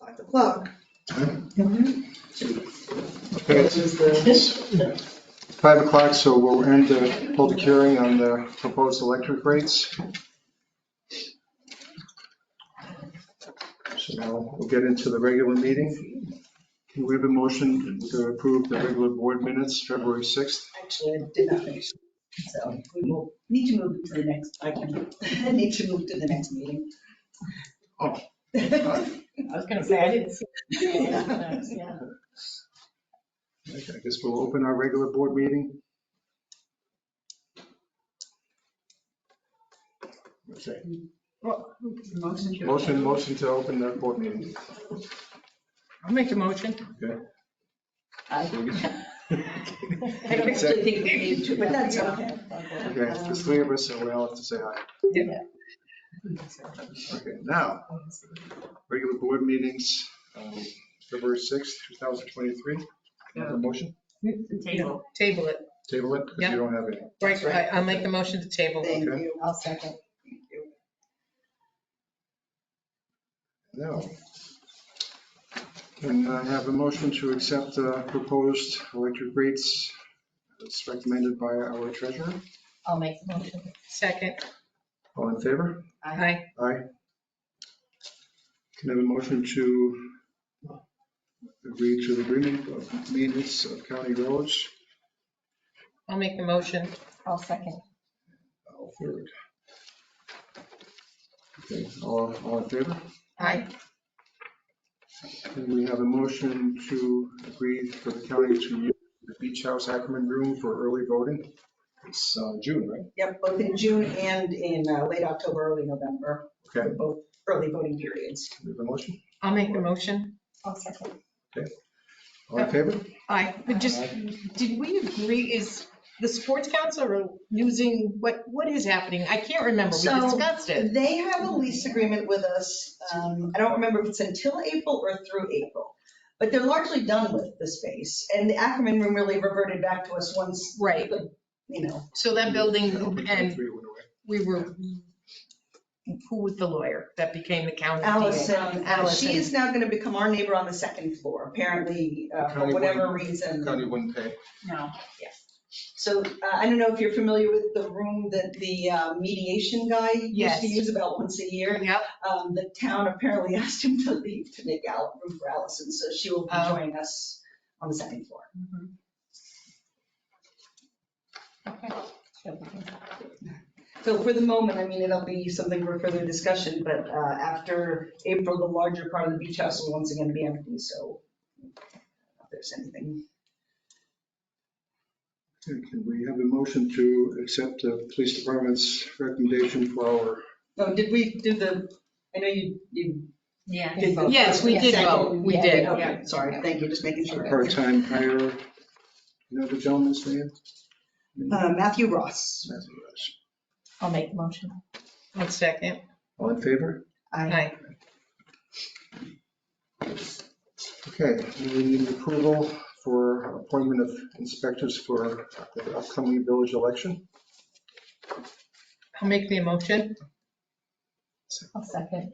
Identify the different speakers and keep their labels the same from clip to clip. Speaker 1: five o'clock.
Speaker 2: Okay, it's five o'clock, so we'll end the public hearing on the proposed electric rates. So now we'll get into the regular meeting. Can we have a motion to approve the regular board minutes, February 6th?
Speaker 3: Actually, I did not finish. So we will need to move to the next, I can, I need to move to the next meeting.
Speaker 2: Oh.
Speaker 4: I was gonna say, I didn't see. Yeah.
Speaker 2: Okay, I guess we'll open our regular board meeting. Okay, Motion, motion to open the board meeting.
Speaker 4: I'll make a motion. I don't actually think we need to,
Speaker 3: But that's okay.
Speaker 2: Okay, there's three of us, so we all have to say hi. Okay, now, regular board meetings, um, February 6th, 2023. Can I Have a motion,
Speaker 4: Table. Table it,
Speaker 2: table it, because
Speaker 4: Yeah.
Speaker 2: you don't have any.
Speaker 4: right, I- I'll make the motion to table.
Speaker 3: Thank you. I'll second. Thank you.
Speaker 2: No. Can I have a motion to accept the proposed electric rates as recommended by our treasurer?
Speaker 4: I'll make the motion. Second,
Speaker 2: All in favor?
Speaker 4: aye.
Speaker 2: Aye. Can I have a motion to uh, agree to the agreement of maintenance of county roads?
Speaker 4: I'll make the motion.
Speaker 5: I'll second.
Speaker 2: I'll third. Okay, all, all in favor?
Speaker 4: Aye.
Speaker 2: And we have a motion to agree for the county to use the Beach House Ackerman Room for early voting. It's uh, June, right?
Speaker 3: Yep, both in June and in uh, late October, early November,
Speaker 2: Okay,
Speaker 3: for both early voting periods.
Speaker 2: we have a motion.
Speaker 4: I'll make the motion.
Speaker 5: I'll second.
Speaker 2: All in favor?
Speaker 4: Aye,
Speaker 5: But
Speaker 4: just, did we agree, is the sports council using, what, what is happening? I can't remember,
Speaker 3: We
Speaker 4: we
Speaker 3: So-
Speaker 4: discussed it.
Speaker 3: They have a lease agreement with us. um, I don't remember if it's until April or through April. But they're largely done with the space. And the Ackerman Room really reverted back to us once,
Speaker 4: Right,
Speaker 3: you know,
Speaker 4: so that building, and
Speaker 2: Three went away.
Speaker 4: we were, who was the lawyer that became the county?
Speaker 3: Allison.
Speaker 4: Allison.
Speaker 3: She is now going to become our neighbor on the second floor, apparently, uh, for
Speaker 2: County
Speaker 3: whatever
Speaker 2: wouldn't-
Speaker 3: reason.
Speaker 2: County wouldn't pay.
Speaker 5: No.
Speaker 3: So uh, I don't know if you're familiar with the room that the uh, mediation guy used
Speaker 4: Yes.
Speaker 3: to use about once a year.
Speaker 4: Yep,
Speaker 3: Um, The town apparently asked him to leave to make out room for Allison, so she will be
Speaker 4: Oh. Mm-hmm.
Speaker 3: joining us on the second floor.
Speaker 5: Okay.
Speaker 3: So for the moment, I mean, it'll be something for further discussion, but uh, after April, the larger part of the beach house will once again be empty, so if there's anything.
Speaker 2: Okay, Can we have a motion to accept the police department's recommendation for our,
Speaker 3: Oh, did we do the, I know you, you
Speaker 5: Yeah.
Speaker 3: did vote.
Speaker 4: Yes, we did vote. We
Speaker 3: Yeah,
Speaker 4: did,
Speaker 3: okay,
Speaker 4: yeah.
Speaker 3: Sorry, thank you, just making sure.
Speaker 2: our part-time hire? You know the gentleman's name?
Speaker 3: Uh, Matthew Ross.
Speaker 2: Matthew Rush.
Speaker 5: I'll make the motion.
Speaker 4: one second.
Speaker 2: All in favor?
Speaker 4: Aye.
Speaker 2: Okay, we need approval for appointment of inspectors for the upcoming village election.
Speaker 4: I'll make the motion.
Speaker 5: I'll second.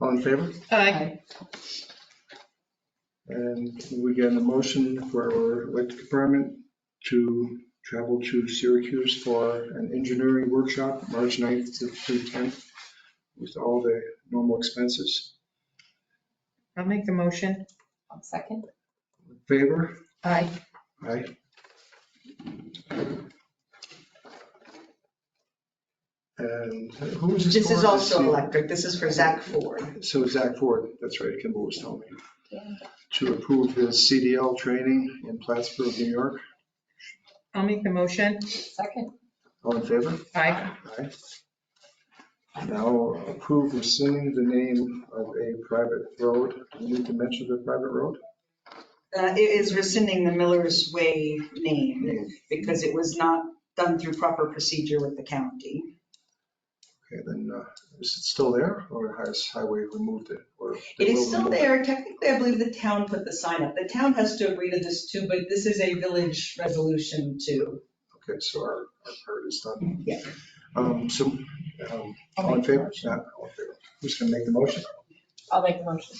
Speaker 2: All in favor?
Speaker 4: Aye.
Speaker 2: And we get a motion for our electric department to travel to Syracuse for an engineering workshop, March 9th to through 10th, with all the normal expenses.
Speaker 4: I'll make the motion.
Speaker 5: I'll second.
Speaker 2: In Favor?
Speaker 4: Aye.
Speaker 2: Aye. And who is this?
Speaker 3: This is
Speaker 2: for?
Speaker 3: also
Speaker 2: This-
Speaker 3: electric, this is for Zach Ford.
Speaker 2: So Zach Ford, that's right, Kimball was telling me, to approve his CDL training in Plattsburgh, New York.
Speaker 4: I'll make the motion.
Speaker 5: Second.
Speaker 2: All in favor?
Speaker 4: Aye.
Speaker 2: Aye. Now approve rescinding the name of a private road. Do you need to mention the private road?
Speaker 3: Uh, It is rescinding the Miller's Way name
Speaker 2: Okay,
Speaker 3: because it was not done through proper procedure with the county.
Speaker 2: then, uh, is it still there or has Highway removed it? or they
Speaker 3: It
Speaker 2: will
Speaker 3: is still
Speaker 2: remove
Speaker 3: there, technically, I believe the town put the sign up. The town has to agree to this too, but this is a village resolution too.
Speaker 2: Okay, so our, our part is done.
Speaker 3: Yeah.
Speaker 2: Um, so, um,
Speaker 5: I'll
Speaker 2: all in
Speaker 5: make the
Speaker 2: favor?
Speaker 5: motion.
Speaker 2: Not all in favor. Who's going to make the motion?
Speaker 5: I'll make the motion.